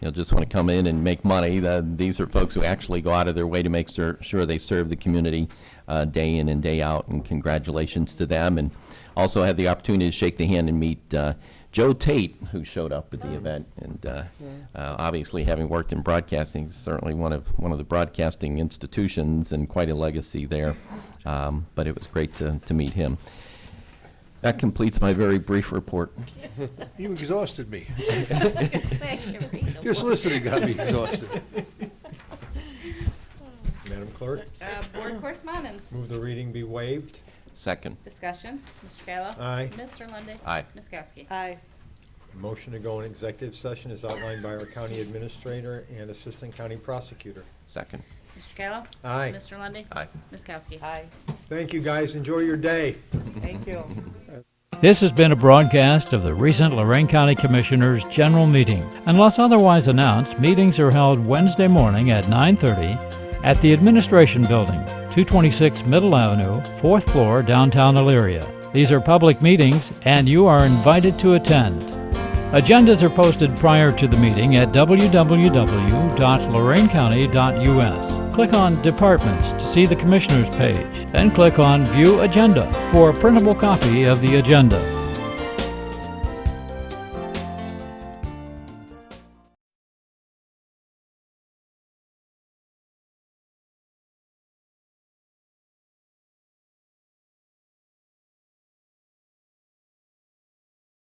you know, just want to come in and make money. The- These are folks who actually go out of their way to make sur- sure they serve the community uh, day in and day out, and congratulations to them. And also had the opportunity to shake the hand and meet uh, Joe Tate, who showed up at the event. And uh, uh, obviously, having worked in broadcasting, he's certainly one of, one of the broadcasting institutions and quite a legacy there. Um, But it was great to, to meet him. That completes my very brief report. You exhausted me. Say, read the Just word. listening got me exhausted. Madam Clerk, Uh, Board correspondence. move the reading be waived. Second. Discussion. Mr. Kayla. Aye. Mr. Lundy. Aye. Ms. Kowski. Aye. Motion to go in executive session is outlined by our county administrator and assistant county prosecutor. Second. Mr. Kayla. Aye. Mr. Lundy. Aye. Ms. Kowski. Aye. Thank you, guys. Enjoy your day. Thank you. This has been a broadcast of the recent Lorraine County Commissioners' General Meeting. Unless otherwise announced, meetings are held Wednesday morning at 9:30 at the Administration Building, 226 Middle Avenue, 4th floor, downtown Elyria. These are public meetings, and you are invited to attend. Agendas are posted prior to the meeting at www.lorainecounty.us. Click on Departments to see the Commissioners page, then click on View Agenda for a printable copy of the agenda.